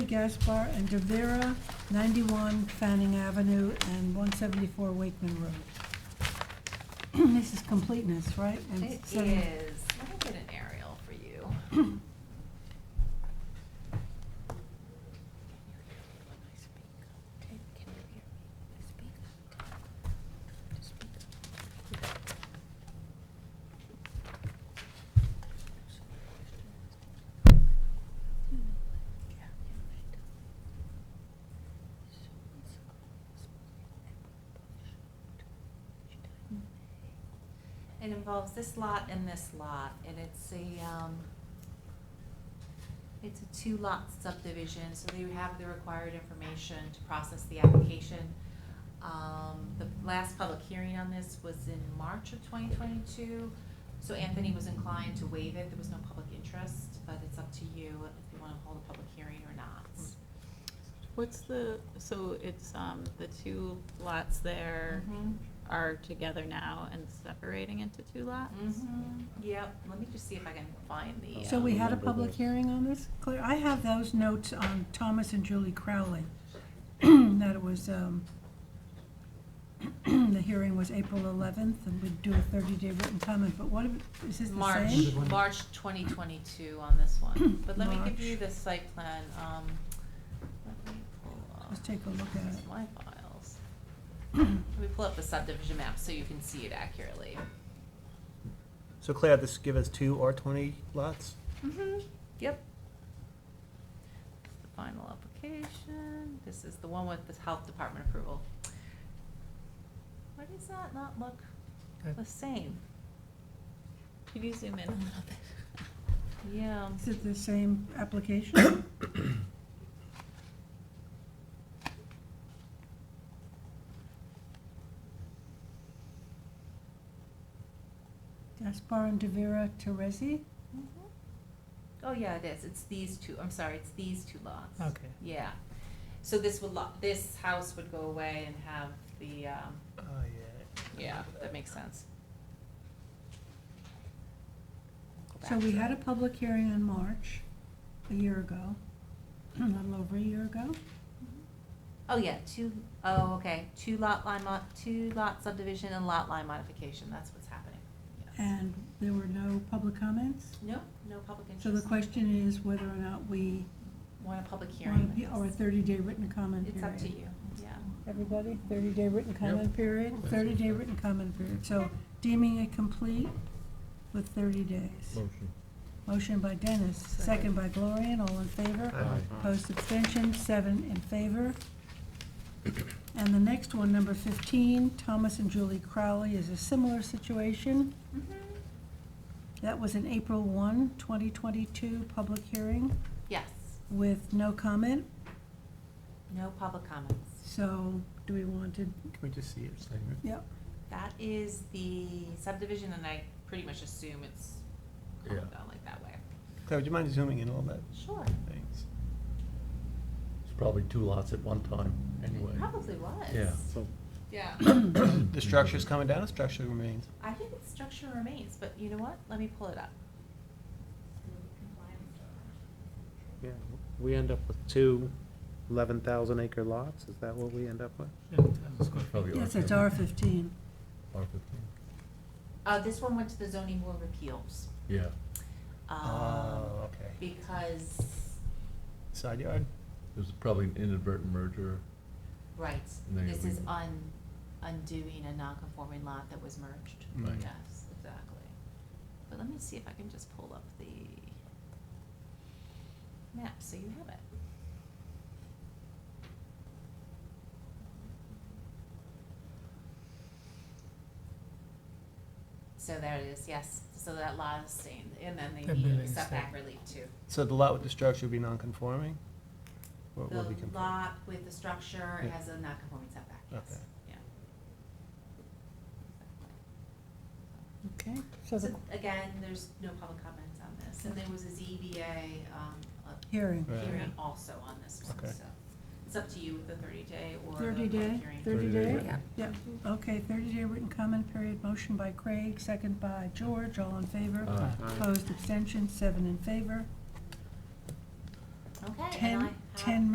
Gaspar and Devera, 91 Fanning Avenue and 174 Wakeman Road. This is completeness, right? And It is, let setting- me get an aerial for you. It involves this lot and this lot, and it's a, um, it's a two-lot subdivision, so they have the required information to process the application. Um, the last public hearing on this was in March of twenty twenty-two, so Anthony was inclined to waive it, there was no public interest, but it's up to you if you wanna hold a public hearing or not. What's the, so it's, um, the two lots there Mhm. are together now and separating into two lots? Mhm. yep, let me just see if I can find the. So um, we had a Remember public that. hearing on this? Claire, I have those notes on Thomas and Julie Crowley, that it was, um, the hearing was April 11th, and we'd do a 30-day written comment, but what, if- is this the March, same? Hmm. March twenty twenty-two on this one, but let me give March. you the site plan, um, let me pull up. Let's take a look at it. My files. Let me pull up the subdivision map so you can see it accurately. So Claire, this give us two R twenty lots? Mm-hmm, yep. The final application, this is the one with the health department approval. Why does that not look Uh, Okay. the same? Could you zoom in a little bit? Yeah. Is it the same application? Gaspar and Devera Teresi? Mhm. Oh, yeah, it is, it's these two, I'm sorry, it's these two lots. Okay. Yeah, so this would lot, this house would go away and have the, um, Oh, yeah. yeah, that makes sense. Go So back we to had a it. public hearing in March, a year ago, a little over a year ago. Oh, yeah, two, oh, okay, two lot line mod, two lot subdivision and lot line modification, that's what's happening. Yes. And there were no public comments. No, no public So the interest, question is whether or not we want a public want hearing. to be, on or a this. thirty-day written comment It's period. up to you, yeah. Everybody, thirty-day written comment period, That's thirty-day it. written comment period. So deeming it complete with thirty days. Motion. Motion by Dennis, second Second. by Gloria, and all in favor. Aye. Opposed, abstention, seven in favor. And the next one, number fifteen, Thomas and Julie Crowley, is a similar situation. Mhm. That was an April 1, 2022, public hearing Yes, with no comment. no public comments. So do we want to, Can we just see it? yep, That is the subdivision, and I pretty much assume it's going Yeah. down like that way. Claire, would you mind zooming in a little bit? Sure, Thanks. It's probably two lots at one time, anyway. probably was. Yeah. So Yeah. The structure's coming down, the structure remains. I think its structure remains, but you know what? Let me pull it up. Yeah, we end up with two 11,000 acre lots, is that what we end up with? Probably yes, R it's R fifteen. R fifteen, Uh, this one went to the zoning board of appeals. yeah. um, Oh, okay. Because, Side yard? It was probably an inadvertent merger. right, There this we- is un, undoing a non-conforming lot that was merged. Right. Yes, exactly. But let me see if I can just pull up the map so you have it. So there it is, yes. So that lot is staying, and then they That need building is setback staying. relief too. So the lot with the structure would be non-conforming? Or it will be The conform- lot with the structure Yeah. has a non-conforming setback, yes, Okay. yeah. Okay. So the So again, there's no public comments on this, and there was a ZBA, um, a hearing, Right. hearing also on this one, Okay. so. It's up to you with the thirty day or the thirty public day, hearing. thirty 30 day day? written. Yep, okay, thirty day written comment period, motion by Craig, second by George, all in favor. Uh, Aye. Opposed, abstention, seven in favor. Okay, and Ten, I, How- 10